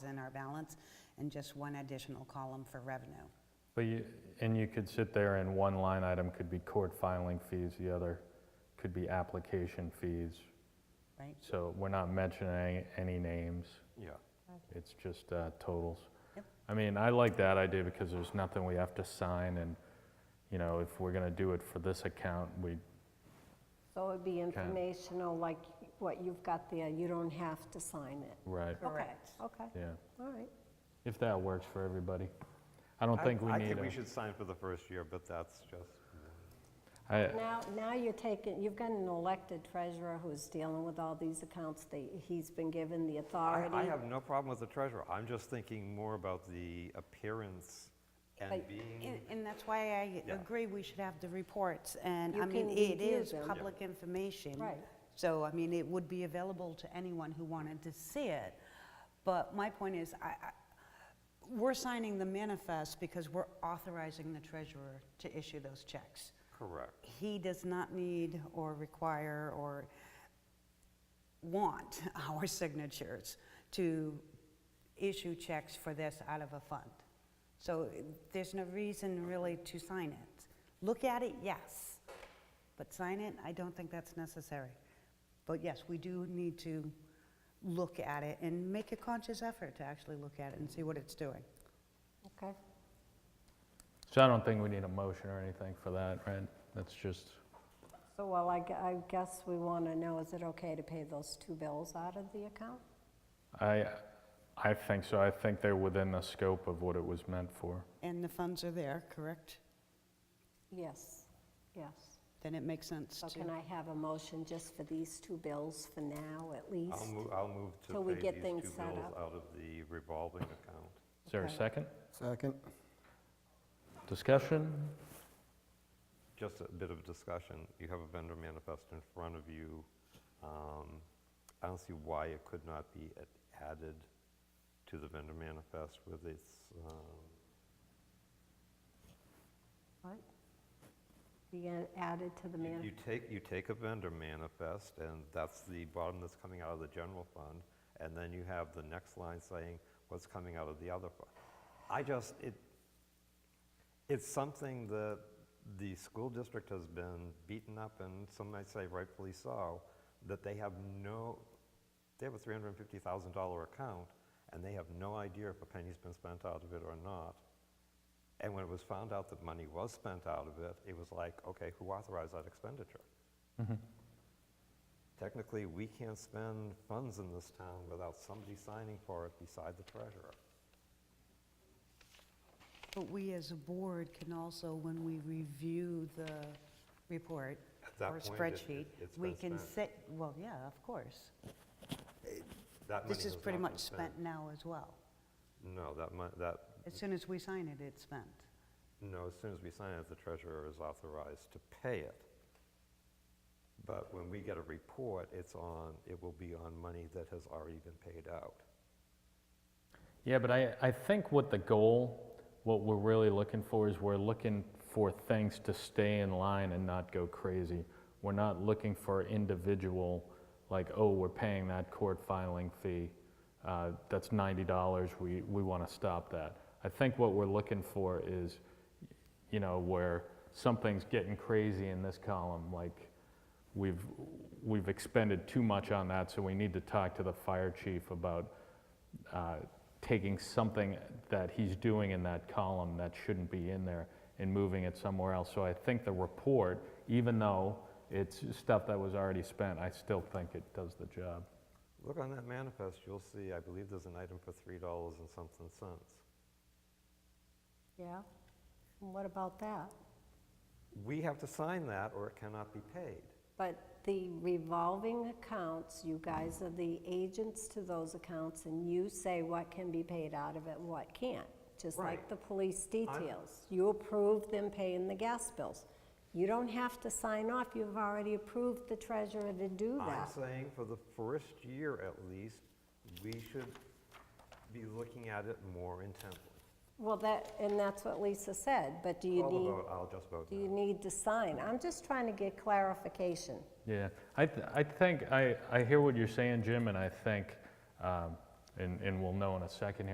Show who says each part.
Speaker 1: than our balance, and just one additional column for revenue.
Speaker 2: But you, and you could sit there and one line item could be court filing fees, the other could be application fees.
Speaker 1: Right.
Speaker 2: So we're not mentioning any names,
Speaker 3: Yeah.
Speaker 2: it's just uh, totals.
Speaker 1: Yep.
Speaker 2: I mean, I like that idea because there's nothing we have to sign and, you know, if we're gonna do it for this account, we,
Speaker 4: So it would be informational, like what you've got there, you don't have to sign it.
Speaker 2: right,
Speaker 4: Okay,
Speaker 1: Correct.
Speaker 4: Okay,
Speaker 2: yeah.
Speaker 4: all right.
Speaker 2: If that works for everybody. I don't think we
Speaker 3: I
Speaker 2: need
Speaker 3: think we
Speaker 2: a,
Speaker 3: should sign for the first year, but that's just,
Speaker 2: I,
Speaker 4: Now, now you're taking, you've got an elected treasurer who's dealing with all these accounts, that he's been given the
Speaker 3: I-
Speaker 4: authority.
Speaker 3: I have no problem with the treasurer. I'm just thinking more about the appearance and
Speaker 4: Like,
Speaker 3: being,
Speaker 1: And, and that's why I
Speaker 3: Yeah.
Speaker 1: agree we should have the reports, and,
Speaker 4: You
Speaker 1: I mean,
Speaker 4: can
Speaker 1: it
Speaker 4: review
Speaker 1: is
Speaker 4: them. Yeah.
Speaker 1: public information.
Speaker 4: Right.
Speaker 1: So, I mean, it would be available to anyone who wanted to see it, but my point is, I, I, we're signing the manifest because we're authorizing the treasurer to issue those checks.
Speaker 3: correct.
Speaker 1: He does not need or require or want our signatures to issue checks for this out of a fund. So eh, there's no reason really to sign it. Look at it, yes, but sign it, I don't think that's necessary. But yes, we do need to look at it and make a conscious effort to actually look at it and see what it's doing.
Speaker 4: Okay,
Speaker 2: so I don't think we need a motion or anything for that, right? That's just,
Speaker 4: so well, I gu- I guess we want to know, is it okay to pay those two bills out of the account?
Speaker 2: I, I think so, I think they're within the scope of what it was meant for.
Speaker 1: And the funds are there, correct?
Speaker 4: Yes, yes.
Speaker 1: Then it makes sense
Speaker 4: So
Speaker 1: to.
Speaker 4: can I have a motion just for these two bills for now, at least?
Speaker 3: I'll move, I'll move
Speaker 4: Till we
Speaker 3: to pay
Speaker 4: get
Speaker 3: these
Speaker 4: things
Speaker 3: two
Speaker 4: set
Speaker 3: bills
Speaker 4: up.
Speaker 3: out of the revolving account.
Speaker 2: Is there a
Speaker 4: Okay.
Speaker 2: second?
Speaker 5: Second.
Speaker 2: Discussion?
Speaker 3: Just a bit of discussion. You have a vendor manifest in front of you. Um, I don't see why it could not be a- added to the vendor manifest with its, um,
Speaker 4: What? Be a- added to the
Speaker 3: You-
Speaker 4: man,
Speaker 3: You take, you take a vendor manifest, and that's the bottom that's coming out of the general fund, and then you have the next line saying what's coming out of the other fund. I just, it, it's something that the school district has been beaten up, and some might say rightfully so, that they have no, they have a $350,000 account, and they have no idea if a penny's been spent out of it or not. And when it was found out that money was spent out of it, it was like, okay, who authorized that expenditure? Technically, we can't spend funds in this town without somebody signing for it beside the treasurer.
Speaker 1: But we as a board can also, when we review the report
Speaker 3: At that
Speaker 1: or
Speaker 3: point, it-
Speaker 1: spreadsheet,
Speaker 3: it- it's
Speaker 1: we
Speaker 3: been
Speaker 1: can
Speaker 3: spent.
Speaker 1: sit, well, yeah, of course.
Speaker 3: That
Speaker 1: This
Speaker 3: money
Speaker 1: is
Speaker 3: has
Speaker 1: pretty
Speaker 3: not been
Speaker 1: much spent now as well.
Speaker 3: No, that mon, that,
Speaker 1: As soon as we sign it, it's spent.
Speaker 3: no, as soon as we sign it, the treasurer is authorized to pay it. But when we get a report, it's on, it will be on money that has already been paid out.
Speaker 2: Yeah, but I, I think what the goal, what we're really looking for is we're looking for things to stay in line and not go crazy. We're not looking for individual, like, oh, we're paying that court filing fee, uh, that's $90, we, we want to stop that. I think what we're looking for is, you know, where something's getting crazy in this column, like we've, we've expended too much on that, so we need to talk to the fire chief about uh, taking something that he's doing in that column that shouldn't be in there and moving it somewhere else. So I think the report, even though it's stuff that was already spent, I still think it does the job.
Speaker 3: Look on that manifest, you'll see, I believe there's an item for three dollars and something cents.
Speaker 4: yeah? And What about that?
Speaker 3: We have to sign that or it cannot be paid.
Speaker 4: But the revolving accounts, you guys are the agents to those accounts, and you say what can be paid out of it and what can't, just like
Speaker 3: Right.
Speaker 4: the police details. You approve them paying the gas bills. You don't have to sign off, you've already approved the treasurer to do
Speaker 3: I'm
Speaker 4: that.
Speaker 3: saying for the first year at least, we should be looking at it more intently.
Speaker 4: Well, that, and that's what Lisa said, but do you
Speaker 3: Call the
Speaker 4: need,
Speaker 3: vote, I'll just vote
Speaker 4: do you
Speaker 3: no.
Speaker 4: need to sign? I'm just trying to get clarification.
Speaker 2: Yeah, I, th- I think, I, I hear what you're saying, Jim, and I think um, and, and we'll know in a second here.